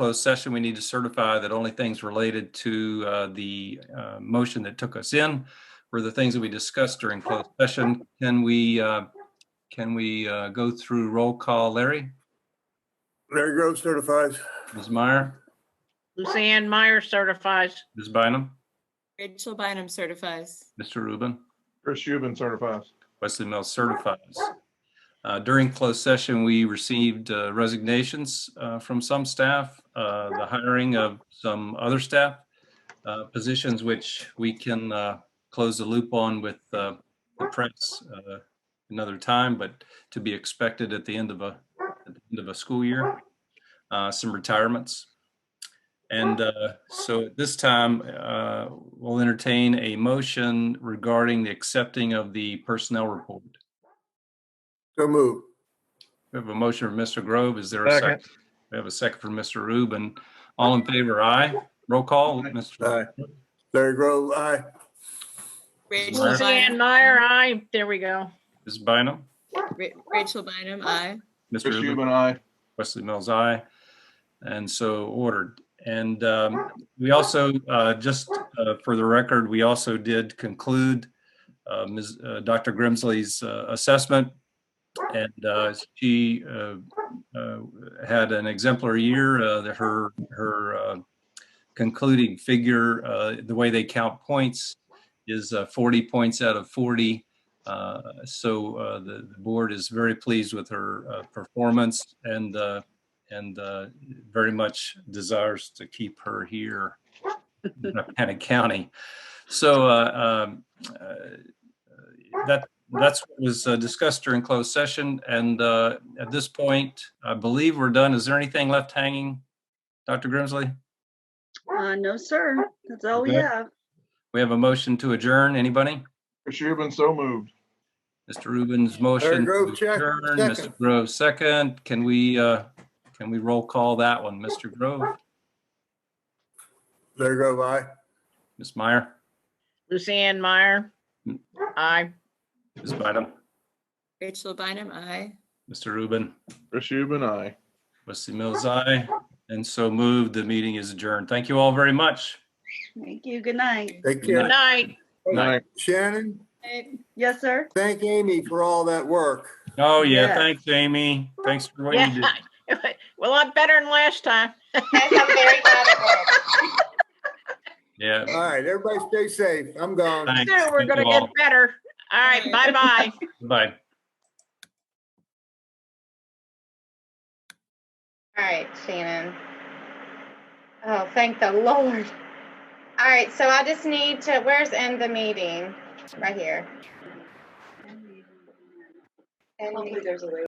closed session, we need to certify that only things related to uh, the uh, motion that took us in were the things that we discussed during closed session. Can we, uh, can we uh, go through roll call? Larry, Larry Grove certifies. Ms. Meyer, Lucianne Meyer certifies. Ms. Bynum, Rachel Bynum certifies. Mr. Rubin? Chris Euban certifies. Wesley Mills certifies. Uh, During closed session, we received uh, resignations uh, from some staff, uh, the hiring of some other staff, uh, positions which we can uh, close the loop on with uh, the press uh, another time, but to be expected at the end of a, at the end of a school year, Uh, some retirements. And uh, so at this time, uh, we'll entertain a motion regarding the accepting of the personnel report. So move. We have a motion from Mr. Grove. Is there a second? We have a second from Mr. Rubin. All in favor, aye. Roll call, Mr. Aye. Larry Grove, aye. Rachel Meyer. Lucianne Bynum, Meyer, aye. There we go. Ms. Bynum, Ra- Rachel Bynum, aye. Mr. Chris Rubin. Euban, aye. Wesley Mills, aye. And so ordered. And um, we also, uh, just uh, for the record, we also did conclude uh, Ms., uh, Dr. Grimsley's uh, assessment. And uh, she uh, uh, had an exemplary year. Uh, that Her, her uh, concluding figure, uh, the way they count points is uh, 40 points out of 40. Uh, So uh, the the board is very pleased with her uh, performance and, uh, and uh, very much desires to keep her here in Rappahannock County. So uh, um, uh, that, that's what was uh, discussed during closed session. And uh, at this point, I believe we're done. Is there anything left hanging, Dr. Grimsley? Uh, no, sir. That's all we Okay. have. We have a motion to adjourn. Anybody? Chris Euban, so moved. Mr. Rubin's motion. to Grove, check- adjourn. second. Mr. Grove, second. Can we, uh, can we roll call that one? Mr. Grove, Larry Grove, aye. Ms. Meyer, Lucianne Meyer, aye. Ms. Bynum, Rachel Bynum, aye. Mr. Rubin, Chris Euban, aye. Wesley Mills, aye. And so moved. The meeting is adjourned. Thank you all very much. Thank you. Good night. Take Good care. night. Aye. Shannon, Yes, sir. thank Amy for all that work. Oh, yeah. Yes. Thanks, Amy. Thanks for what you did. Yeah. Well, I'm better than last time. Yeah. All right, everybody stay safe. I'm gone. Thanks. Sure, We're Thank gonna you all. get better. All right, bye-bye. Bye. All right, Shannon. Oh, thank the Lord. All right, so I just need to, where's end the meeting? Right here. End meeting.